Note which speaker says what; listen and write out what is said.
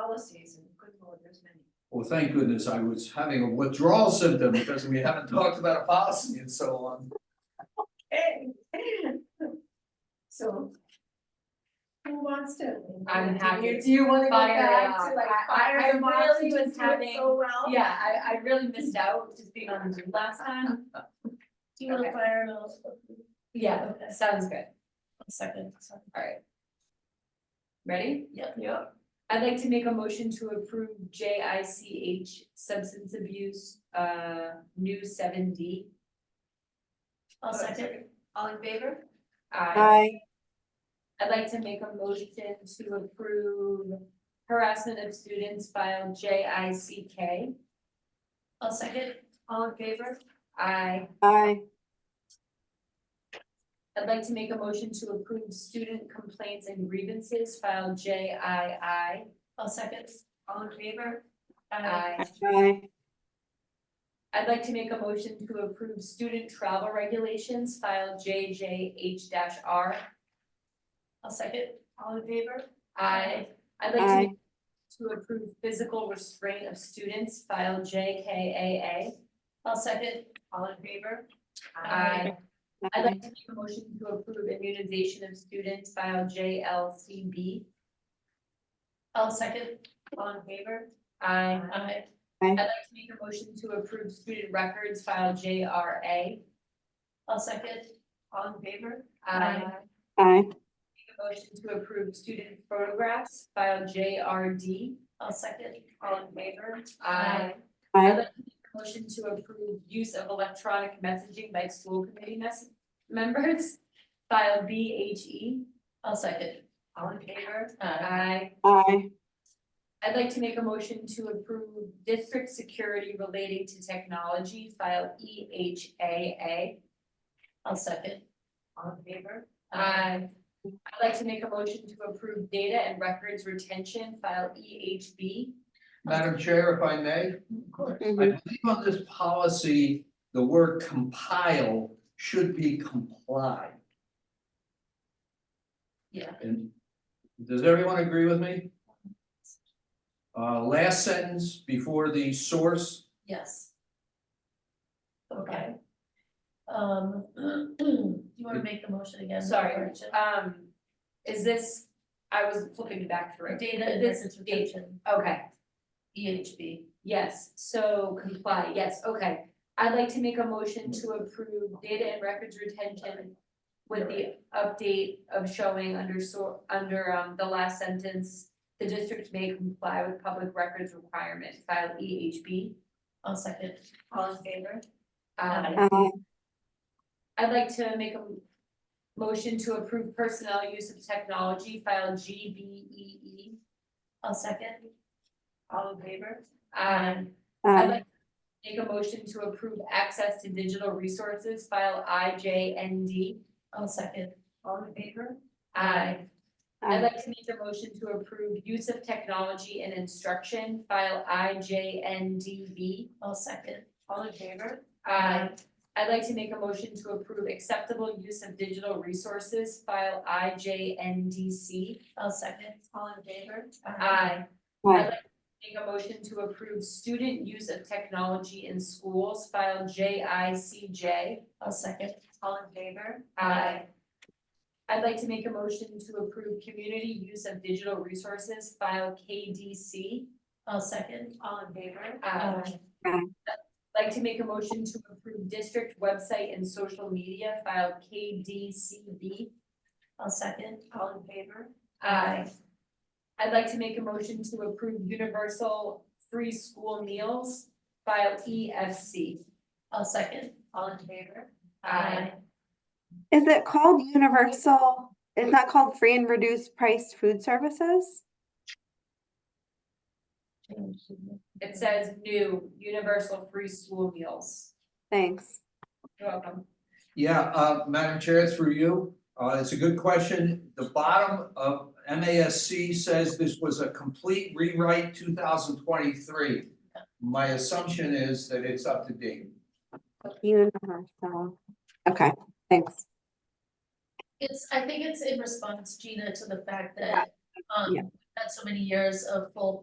Speaker 1: policies and good lord, there's many.
Speaker 2: Well, thank goodness I was having a withdrawal symptom because we haven't talked about a policy in so long.
Speaker 1: Hey. So. Who wants to?
Speaker 3: I'm happy.
Speaker 1: Do you wanna go
Speaker 3: Fire it
Speaker 1: back
Speaker 3: up.
Speaker 1: to like
Speaker 3: I- I- I
Speaker 1: fire the
Speaker 3: really
Speaker 1: moms who
Speaker 3: was
Speaker 1: was doing so
Speaker 3: having-
Speaker 1: well?
Speaker 3: Yeah, I, I really missed out just being on Zoom last time.
Speaker 1: Do
Speaker 3: you wanna
Speaker 1: fire those?
Speaker 3: Yeah, sounds good.
Speaker 1: Second.
Speaker 3: Alright. Ready?
Speaker 1: Yep. Yep.
Speaker 3: I'd like to make a motion to approve J I C H substance abuse, uh, new seven D.
Speaker 1: I'll second. All in favor?
Speaker 3: I,
Speaker 4: Aye.
Speaker 3: I'd like to make a motion to approve harassment of students file J I C K.
Speaker 1: I'll second. All in favor?
Speaker 3: I,
Speaker 4: Aye.
Speaker 3: I'd like to make a motion to approve student complaints and grievances file J I I.
Speaker 1: I'll second. All in favor?
Speaker 3: I,
Speaker 4: Aye.
Speaker 3: I'd like to make a motion to approve student travel regulations file J J H dash R.
Speaker 1: I'll second. All in favor?
Speaker 3: I, I'd like to
Speaker 4: Aye.
Speaker 3: to approve physical restraint of students, file J K
Speaker 1: I'll second. All in favor?
Speaker 3: A A. I, I'd like to make a motion to approve immunization of students, file J L C B.
Speaker 1: I'll second. All in favor?
Speaker 3: I,
Speaker 1: Aye.
Speaker 3: I'd like to make a motion to approve student records, file J R A.
Speaker 1: I'll second. All in favor?
Speaker 3: I,
Speaker 1: Aye.
Speaker 4: Aye.
Speaker 3: make a motion to approve student photographs, file J R D.
Speaker 1: I'll second. All in favor?
Speaker 3: I, I'd like
Speaker 4: Aye.
Speaker 3: to make a motion to approve use of electronic messaging by school committee mess- members, file B H E.
Speaker 1: I'll second. All in favor?
Speaker 3: I,
Speaker 4: Aye.
Speaker 3: I'd like to make a motion to approve district security relating to technology, file E H A
Speaker 1: I'll second. All in favor?
Speaker 3: A. I, I'd like to make a motion to approve data and records retention, file E H B.
Speaker 2: Madam Chair, if I may,
Speaker 1: Of course.
Speaker 2: I
Speaker 3: Mm-hmm.
Speaker 2: believe on this policy, the word compile should be comply.
Speaker 1: Yeah.
Speaker 2: And does everyone agree with me? Uh, last sentence before the source,
Speaker 1: Yes. Okay. Um, do you wanna make the motion again?
Speaker 3: Sorry,
Speaker 1: Gretchen?
Speaker 3: um, is this, I was flipping back through.
Speaker 1: Data and
Speaker 3: This
Speaker 1: records
Speaker 3: data-
Speaker 1: retention, E
Speaker 3: Okay,
Speaker 1: EHB.
Speaker 3: Yes, so comply, yes, okay. I'd like to make a motion to approve data and records retention with the update of showing under so, under um the last sentence, the district may comply with public records requirement, file E EHB.
Speaker 1: I'll second. All in favor?
Speaker 3: Um,
Speaker 4: Aye.
Speaker 3: I'd like to make a motion to approve personnel use of technology, file E GBEE.
Speaker 1: I'll second. All in favor?
Speaker 3: Um, I'd
Speaker 4: Aye.
Speaker 3: like to make a motion to approve access to digital resources, file I J N D.
Speaker 1: I'll second. All in favor?
Speaker 3: I, I'd
Speaker 4: Aye.
Speaker 3: like to make a motion to approve use of technology and instruction, file I J N D V.
Speaker 1: I'll second. All in favor?
Speaker 3: I, I'd like to make a motion to approve acceptable use of digital resources, file I J N D C.
Speaker 1: I'll second. All in favor?
Speaker 3: I, I'd
Speaker 4: Aye.
Speaker 3: like to make a motion to approve student use of technology in schools, file J I C J.
Speaker 1: I'll second. All in favor?
Speaker 3: Aye. I'd like to make a motion to approve community use of digital resources, file KDC.
Speaker 1: I'll second. All in favor?
Speaker 3: Aye.
Speaker 4: Aye.
Speaker 3: I'd Like to make a motion to approve district website and social media, file KDCB.
Speaker 1: I'll second. All in favor?
Speaker 3: Aye. I'd like to make a motion to approve universal free school meals, file E EFC.
Speaker 1: I'll second. All in favor?
Speaker 3: Aye.
Speaker 4: Is it called universal? It's not called free and reduced price food services?
Speaker 3: It says new, universal free school meals.
Speaker 4: Thanks.
Speaker 3: You're welcome.
Speaker 2: yeah, uh, Madam Chair, through you, uh, it's a good question. The bottom of MASC says this was a complete rewrite two thousand twenty-three. My assumption is that it's up to date.
Speaker 4: Universal. Okay, thanks.
Speaker 1: It's, I think it's in response, Gina, to the fact
Speaker 4: Yeah.
Speaker 1: that, um,
Speaker 4: Yeah.
Speaker 1: we've had so many years of full